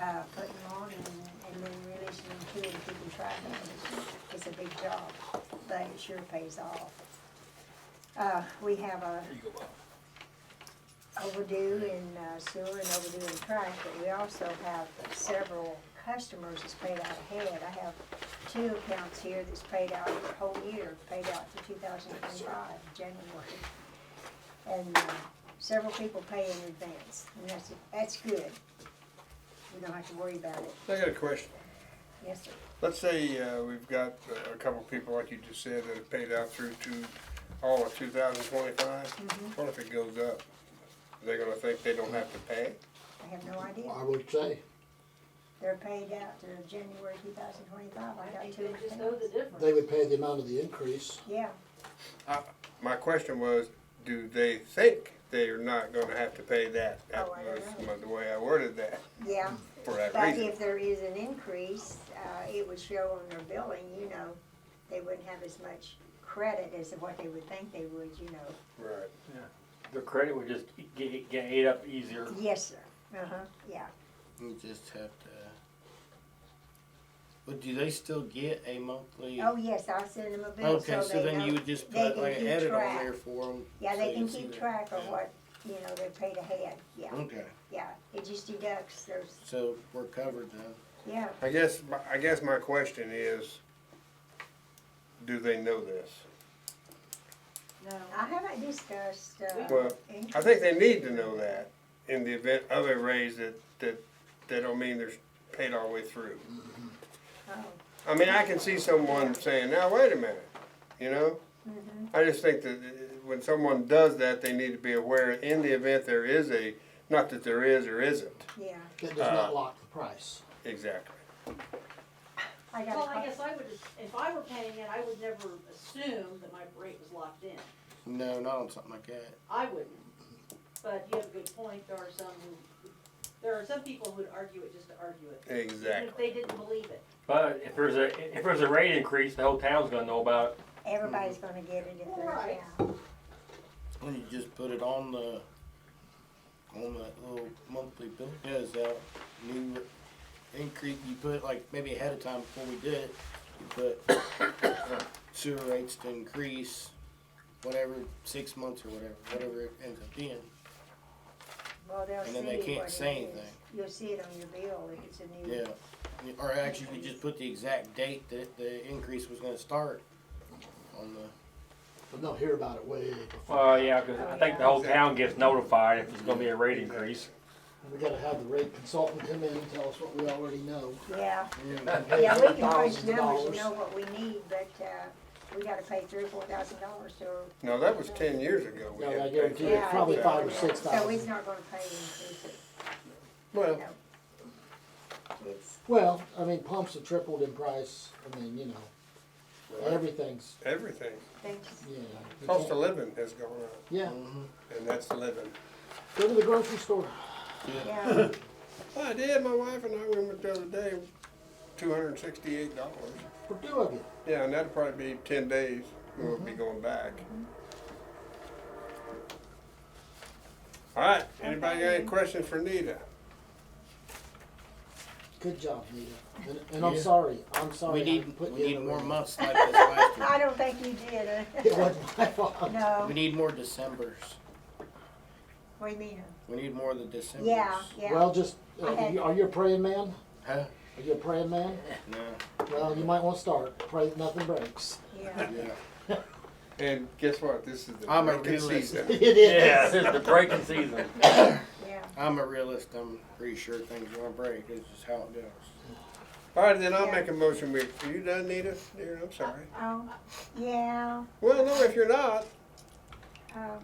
uh, putting on and, and then releasing them to it, keeping track of it. It's a big job, but it sure pays off. Uh, we have a overdue in uh, sewer and overdue in trash, but we also have several customers that's paid out ahead. I have two accounts here that's paid out the whole year, paid out for two thousand twenty-five, January. And uh, several people pay in advance, and that's, that's good. We don't have to worry about it. I got a question. Yes, sir. Let's say uh, we've got uh, a couple people, like you just said, that have paid out through to oh, all of 2025. Mm-hmm. What if it goes up? They're gonna think they don't have to pay. I have no idea. I would say, They're paid out through January two thousand twenty-five. I I got think two they just know the accounts. difference. they would pay the amount of the increase. Yeah, My question was, do they think they are not gonna have to pay that? That Oh, I was don't the way I worded that yeah. for that But reason. if there is an increase, uh, it would show on their billing, you know, they wouldn't have as much credit as what they would think they would, you know. Right. The credit would just get, get ate up easier. Yes, sir. Uh-huh, yeah. You just have to. But do they still get a monthly? Oh, yes, I send them a bill okay, so so they then you know. would just they put can like an keep edit track. on there for them. Yeah, so they can see keep that. track of Yeah. Mm. what, you know, they paid ahead. Yeah, Okay, yeah. It just deducts those, so we're covered then. yeah. I guess, my- I guess my question is, do they know this? No. I haven't discussed, uh, Well, I increase. think they need to know that in the event of a raise that, that, that don't mean they're paid all the way through. Oh, I mean, I can see someone saying, now, wait a minute, you know? mhm. I just think that uh, when someone does that, they need to be aware, in the event there is a, not that there is or isn't, Yeah, That does Uh. not lock the price. exactly. I got a Well, I call. guess I would, if I were paying it, I would never assume that my rate was locked in. No, not on something like that. I wouldn't. But you have a good point, there are some who, there are some people who'd argue it just to argue it. Even if Exactly. they didn't believe it. But if there's a, if there's a rate increase, the whole town's gonna know about it. Everybody's gonna get it if they're Right. down. And you just put it on the on that little monthly bill. Yeah, is that new increase? You put like maybe ahead of time before we did it. You put sewer rates to increase, whatever six months or whatever, whatever it ends up being. Well, they'll see what And then they it can't is. say anything. You'll see it on your bill if it's a new. Yeah. Or actually, you just put the exact date that the increase was going to start on the. But they'll hear about it way before. Well, yeah, cause I think the whole town gets notified if it's gonna be a rate increase. And We gotta have the rate consultant come in and tell us what we already know. Yeah, and pay yeah, we can crunch thousands of numbers and dollars. know what we need, but, uh, we gotta pay three or four thousand dollars or. No, that was ten years ago. we No, had I to pay guarantee for it's Yeah, that. probably five or yeah. six So he's thousand. not gonna pay increase it. Well, It's, Well, I mean, pumps have tripled in price. I mean, you know, everything's, everything, thanks. yeah. you cost of can't- living has gone up, Yeah, and that's living. go to the grocery store. Yeah, I did. My wife and I went the other day, two hundred and sixty-eight dollars. For two of you. Yeah, and that'd probably be ten days. We'll be going back. All right. Anybody got any questions for Nita? Good job, Nita. And, and I'm Oh, Yeah. sorry, I'm sorry. We I need put we you in need a more room. months like this last year. I don't think you did, It uh, wasn't my fault. no, We need more Decembers. what do you mean? We need more of the Decembers. Yeah, yeah, Well, just, uh, I had- you- are you a praying man? Huh? Are you a praying man? No. Well, you might want to start. Pray that nothing breaks. yeah, Yeah. And guess what? This is the I'm a breaking realist. season. it is. Yeah, this is the breaking season. yeah. I'm a realist. I'm pretty sure things are gonna break. It's just how it goes. All right, then I'll Yeah. make a motion. We are you done, Nita? Dear, I'm sorry. Oh, yeah. Well, no, if you're not, Um,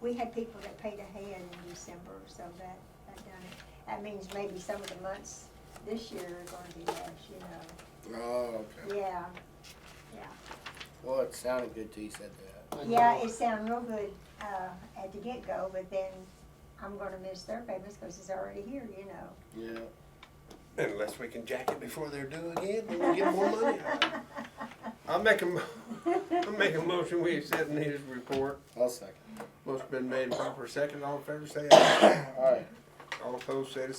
we had people that paid ahead in December, so that, that done it. That means maybe some of the months this year are gonna be less, you know. Oh, okay. Yeah, Well, it sounded good till you said that. I know. yeah, it sounded real good, uh, at the get-go, but then I'm gonna miss their payments because it's already here, you know. Yeah. unless we can jack it before they're due again, then we get more money. I'll make a, mo- I'll make a motion. We accept Nita's report. I'll second. Motion been made and proper second. All in favor, say aye. All right. All opposed, say the same.